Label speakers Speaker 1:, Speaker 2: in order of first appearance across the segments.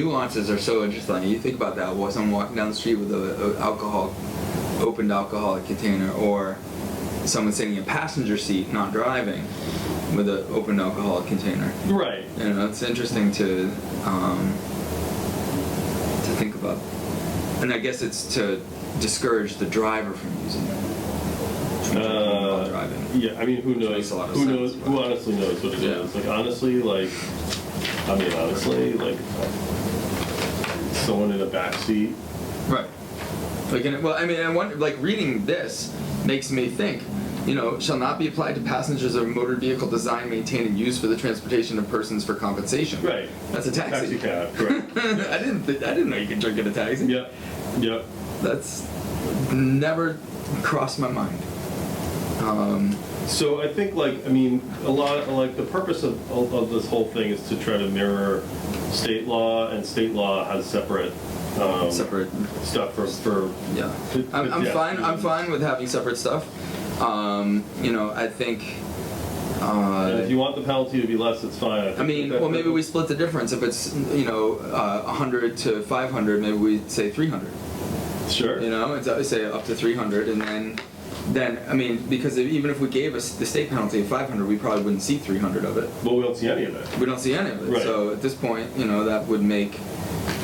Speaker 1: Nuances are so interesting. You think about that while someone walking down the street with a, a alcohol, opened alcoholic container, or someone sitting in a passenger seat, not driving, with an open alcoholic container.
Speaker 2: Right.
Speaker 1: You know, it's interesting to um, to think about, and I guess it's to discourage the driver from using it. From drinking while
Speaker 2: Uh,
Speaker 1: driving.
Speaker 2: yeah, I mean, who
Speaker 1: Which
Speaker 2: knows?
Speaker 1: makes a lot of
Speaker 2: Who
Speaker 1: sense,
Speaker 2: knows?
Speaker 1: but-
Speaker 2: Who honestly knows what it is?
Speaker 1: Yeah.
Speaker 2: Like honestly, like I mean, honestly, like someone in a backseat.
Speaker 1: Right. Like, and, well, I mean, I wonder, like, reading this makes me think, you know, shall not be applied to passengers of a motor vehicle designed, maintained, and used for the transportation of persons for compensation.
Speaker 2: Right.
Speaker 1: That's a taxi.
Speaker 2: cab. Correct.
Speaker 1: I didn't, th- I didn't know you could drink in a taxi.
Speaker 2: yep. Yep.
Speaker 1: That's never crossed my mind. Um,
Speaker 2: So I think like I mean a lot like the purpose of, of of this whole thing is to try to mirror state law and state law has separate um,
Speaker 1: separate.
Speaker 2: stuff for for
Speaker 1: Yeah.
Speaker 2: Could-
Speaker 1: I'm,
Speaker 2: could
Speaker 1: I'm
Speaker 2: the
Speaker 1: fine. I'm
Speaker 2: afternoon-
Speaker 1: fine with having separate stuff. Um, you know, I think.
Speaker 2: and
Speaker 1: Uh,
Speaker 2: if you want the penalty to be less it's fine. think
Speaker 1: I mean,
Speaker 2: that-
Speaker 1: well, maybe we split the difference. If it's you know uh, 100 to 500, maybe we say 300.
Speaker 2: sure
Speaker 1: You know, it's uh, say up to 300, and then then I mean, because if, even if we gave us the state penalty of 500, we probably wouldn't see 300 of it.
Speaker 2: well we don't see any of it.
Speaker 1: We don't see any of it.
Speaker 2: Right.
Speaker 1: So at this point, you know, that would make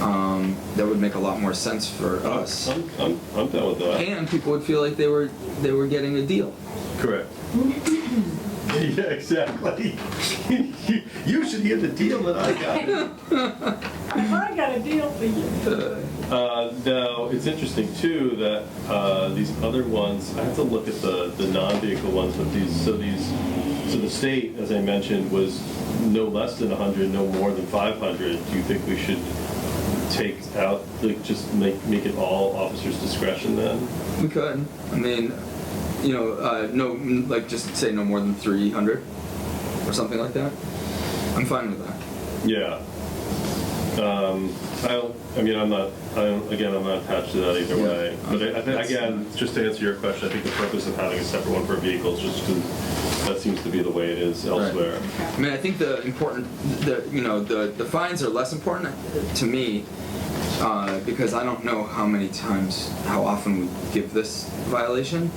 Speaker 1: um, that would make a lot more sense for us,
Speaker 2: I'm, I'm, I'm done with that.
Speaker 1: and people would feel like they were they were getting a deal.
Speaker 2: Correct. yeah, exactly. you, you should hear the deal that I got.
Speaker 3: I got a deal for you.
Speaker 1: Uh,
Speaker 2: uh, now, it's interesting, too, that uh, these other ones, I have to look at the, the non vehicle ones, but these, so these, so the state, as I mentioned, was no less than 100, no more than 500. Do you think we should take out, like, just make, make it all officers' discretion then?
Speaker 1: we could. I mean, you know, uh, no, mm, like just say no more than 300 or something like that. I'm fine with that.
Speaker 2: Yeah. Um, I don't, I mean, I'm not, I don't, again, I'm not attached to that either
Speaker 1: Yeah.
Speaker 2: way. But I, I think,
Speaker 1: That's-
Speaker 2: again, just to answer your question, I think the purpose of having a separate one for vehicles just because that seems to be the way it is elsewhere.
Speaker 1: I mean, I think the important, the you know, the the fines are less important to me uh, because I don't know how many times, how often we give this violation.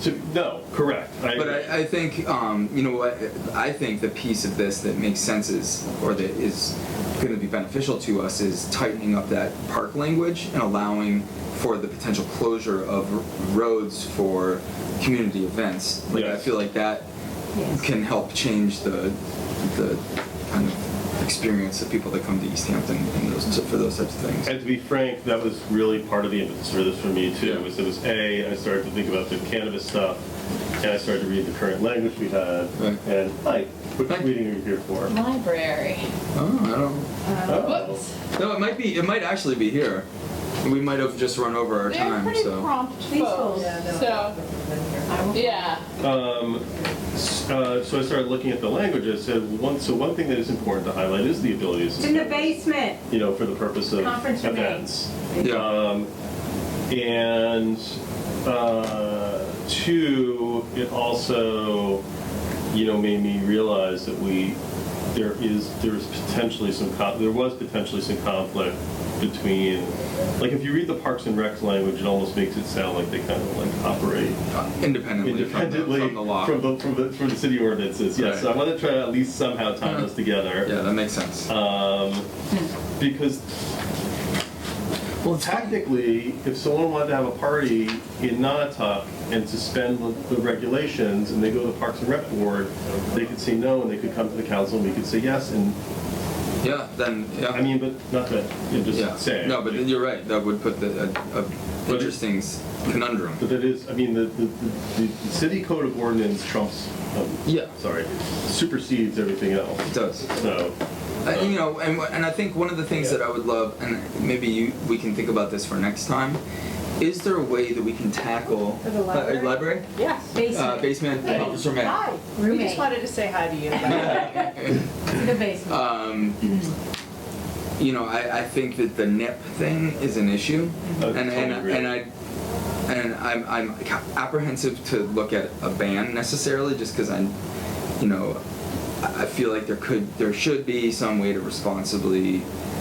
Speaker 2: So, no, correct. I
Speaker 1: But
Speaker 2: agree.
Speaker 1: I, I think, um, you know what, I think the piece of this that makes sense is, or that is going to be beneficial to us is tightening up that park language and allowing for the potential closure of r- roads for community events. Like, I
Speaker 2: Yes.
Speaker 1: feel like that
Speaker 3: Yes.
Speaker 1: can help change the, the kind of experience of people that come to East Hampton and those, for those types of things.
Speaker 2: And to be frank, that was really part of the impetus for this for me too.
Speaker 1: Yeah.
Speaker 2: Was it was a I started to think about the cannabis stuff, and I started to read the current language we had,
Speaker 1: Right.
Speaker 2: and like, which
Speaker 1: Right.
Speaker 2: reading are you here for?
Speaker 3: Library.
Speaker 1: Oh, I don't.
Speaker 2: Oh.
Speaker 3: Whoops.
Speaker 1: No, it might be, it might actually be here. We might have just run over our
Speaker 3: They're
Speaker 1: time,
Speaker 3: pretty
Speaker 1: so.
Speaker 3: prompt
Speaker 4: These
Speaker 3: folks.
Speaker 4: folks.
Speaker 3: So, yeah.
Speaker 2: Um, s- uh, so I started looking at the languages. So one, so one thing that is important to highlight is the ability to
Speaker 4: It's in the
Speaker 2: suspend,
Speaker 4: basement.
Speaker 2: You know, for the purpose of
Speaker 4: Conference room.
Speaker 2: events.
Speaker 1: Yeah.
Speaker 2: Um, and uh, two, it also, you know, made me realize that we there is there's potentially some con- there was potentially some conflict between like if you read the Parks and Rec language, it almost makes it sound like they kind of like operate
Speaker 1: Uh, independently,
Speaker 2: independently
Speaker 1: from, the, from the law.
Speaker 2: from the, from the, from the city ordinances. Yes, so I
Speaker 1: Right.
Speaker 2: want to try to at least somehow tie those together.
Speaker 1: yeah, that makes sense.
Speaker 2: Um, because
Speaker 1: well,
Speaker 2: technically, if someone wanted to have a party in Nantucket and suspend the, the regulations, and they go to the Parks and Rec Board, they could say no, and they could come to the council, and we could say yes. And
Speaker 1: yeah, then yeah.
Speaker 2: I mean, but not that you know, just
Speaker 1: yeah.
Speaker 2: saying.
Speaker 1: No, but you're right. That would put the a, a
Speaker 2: But it-
Speaker 1: interesting s conundrum.
Speaker 2: But that is, I mean, the, the, the, the city code of ordinance trumps, um,
Speaker 1: Yeah.
Speaker 2: sorry, supersedes everything else.
Speaker 1: It does.
Speaker 2: So,
Speaker 1: I, you know, and, and I think one of the things
Speaker 2: Yeah.
Speaker 1: that I would love, and maybe you, we can think about this for next time, is there a way that we can tackle
Speaker 4: For the
Speaker 1: uh,
Speaker 4: library?
Speaker 1: library?
Speaker 3: Yes.
Speaker 1: Uh,
Speaker 4: Basement.
Speaker 1: basement,
Speaker 3: Hey.
Speaker 1: officer man.
Speaker 3: Hi. We
Speaker 4: Roommate.
Speaker 3: just wanted to say hi to you.
Speaker 4: It's in the basement.
Speaker 1: um, you know, I, I think that the NIP thing is an issue,
Speaker 2: I
Speaker 1: and and,
Speaker 2: totally agree.
Speaker 1: and I and I'm, I'm apprehensive to look at a ban necessarily, just because I, you know, I I feel like there could, there should be some way to responsibly